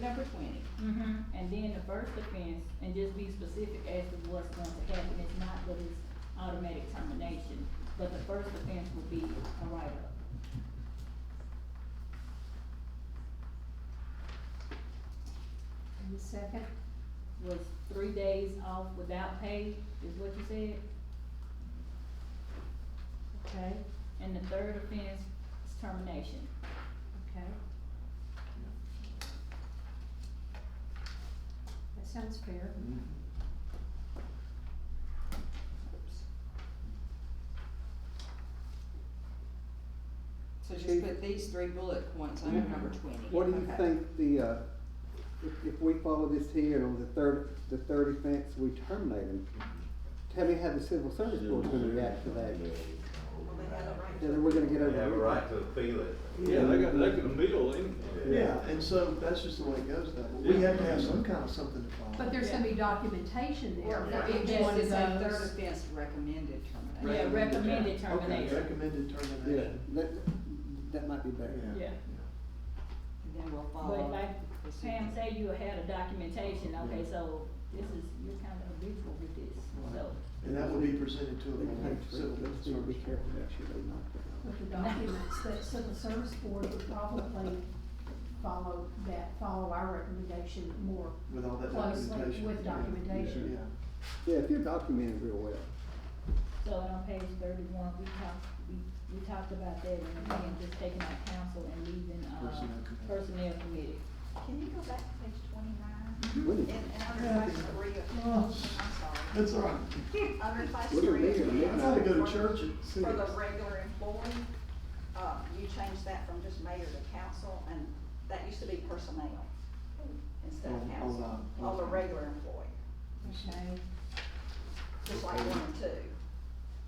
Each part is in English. number twenty. Mm-hmm. And then the first offense, and just be specific as to what's going to happen, it's not that it's automatic termination, but the first offense will be a write-up. And the second? Was three days off without pay, is what you said? Okay, And the third offense is termination. okay. That sounds fair. So just Chief? Mm-hmm. put these three bullet points under Mhm. number twenty. What do you Okay. think the, uh, if, if we follow this here and on the third, the third offense, we terminate him? Tell me how the civil service board's gonna react to that, Well, they have a right to- then we're gonna get They over. have a everything. right to appeal it. Yeah, they got, they can appeal anything. Yeah, and so that's just the way it goes though. We have to have some kind of something to follow. But there's gonna be documentation there. Or for if each one of this is a third those. offense recommended termination. Yeah, recommended Okay, termination. recommended Yeah, termination. that, that might be better. Yeah. And then we'll But follow. like this Pam again. said, you had a documentation, okay, so this is, you're kind of habitual with this, so. And that will be presented to They them, can take civil three, but let's service. Be careful, make sure they knock that out. with the documents, that civil service board would probably follow that, follow our recommendation more With all that closely documentation. with documentation. Yeah. Yeah, if you're documented real well, So on page thirty-one, we talked, we, we talked about that and again, just taking out council and leaving, uh, Personnel committee. personnel committee. Can you go back to page twenty-nine? we And, need, and under Yeah. class three, of- Oh. I'm That's all right. sorry, under class Look at three. me, I'm I not- gotta go to for- church at For six. the regular employee, uh, you changed that from just mayor to council, and that used to be personnel instead On- of on, council, uh, on the on- regular employee, Okay. just like one and two.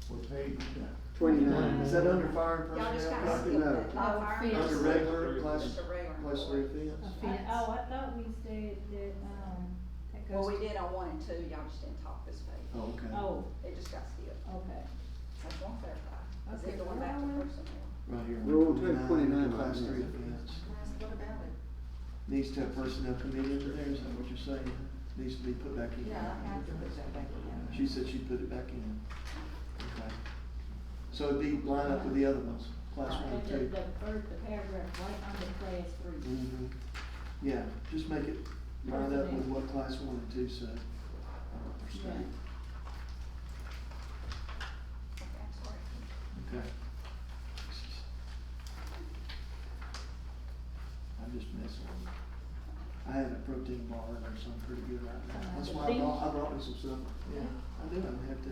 What page is that? twenty-nine. Is that under fire and Y'all just kinda personnel? skipped No. it, not fire, No, just Under Yes. regular, just class, a regular class uh, three employee. I- offense? Offense. Oh, I thought we said that, um, That Well, goes, we did on one and two, y'all just didn't talk this page, Oh, okay. oh, it just got skipped, okay. I just want to clarify, is Okay, it going back to well, personnel? Right here. Rule two twenty-nine, Class yeah. three offense. What about it? Needs to have personnel committee under there, is that what you're saying? Needs to be put back in. Yeah, I have to put that back in. She said she'd put it back in. Okay. So it'd be line up with the other ones, class one But and the, 2 the first, the paragraph right under class three. Mm-hmm. Yeah, just make it line up with what class one and two said. Yeah. Okay, I'm sorry. Okay. I'm just messing with you. I had a protein bar in there, so I'm pretty good right now. That's why I brought, I brought me some stuff. Yeah, I do, I'm happy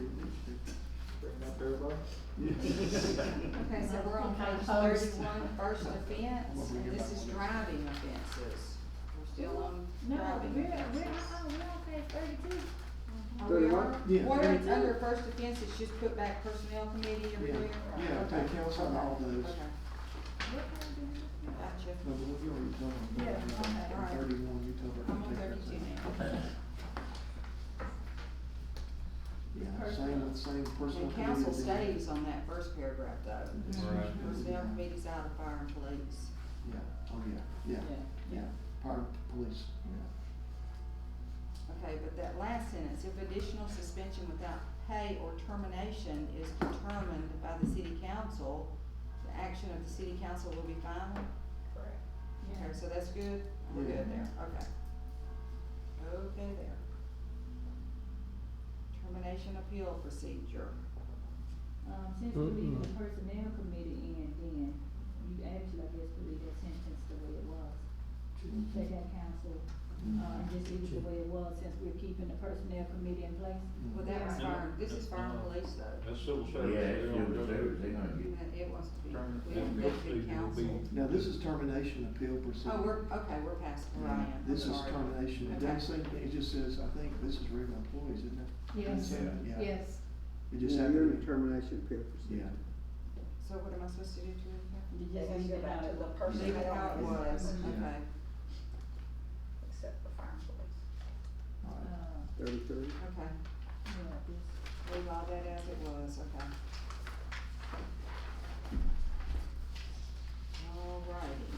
Okay, so we're on page Oh, thirty-one, first offense, and this is driving offenses. We're still on No, driving. we're, we're, uh-uh, we're on page thirty-two. Are we Thirty-one? on? Yeah. Or it's under first offense, it's just put back personnel committee everywhere? Yeah, yeah, Okay, take counsel on all okay, those. okay. Gotcha. No, but we already covered them. Yeah, okay, all right. Thirty-one, you covered. I'm on okay. thirty-two now. Yeah, same with, same personal. And council committee. stays on that first paragraph though. Right. Personnel committee's out of fire and police. Yeah, oh, yeah, yeah, yeah, part of the police, yeah. Okay, but that last sentence, if additional suspension without pay or termination is determined by the city council, the action of the city council will be final? Correct. Okay, so that's good, we're good there, okay. Okay there. Termination appeal procedure. Um, since we leave the personnel committee in, then you actually, I guess, we leave that sentence the way it was. Take out council, Mm-hmm. uh, and just leave it the way it was, since we're keeping the personnel committee in place. Well, that was Yeah. fire, this is fire and Yeah. police though. That's civil Yeah, service. it's They don't- civil service. They gonna And that It wants to be, we Then don't get good they'll see who'll be- counsel. Now, this is termination appeal procedure. Oh, we're, okay, we're past Ryan, I'm This is sorry. termination, it Okay. doesn't say, anything. it just says, I think this is regular employees, isn't it? Yes, Yeah. yes. It just Yeah, happened. you're in a termination period procedure. So what am I supposed to do to it here? You It has to just leave go it back out to of the the. person Leave it how it was, Mhm. okay. Except for fire and police. Uh, Alright. Thirty-three? Okay, yeah, this. leave all that as it was, okay. All righty.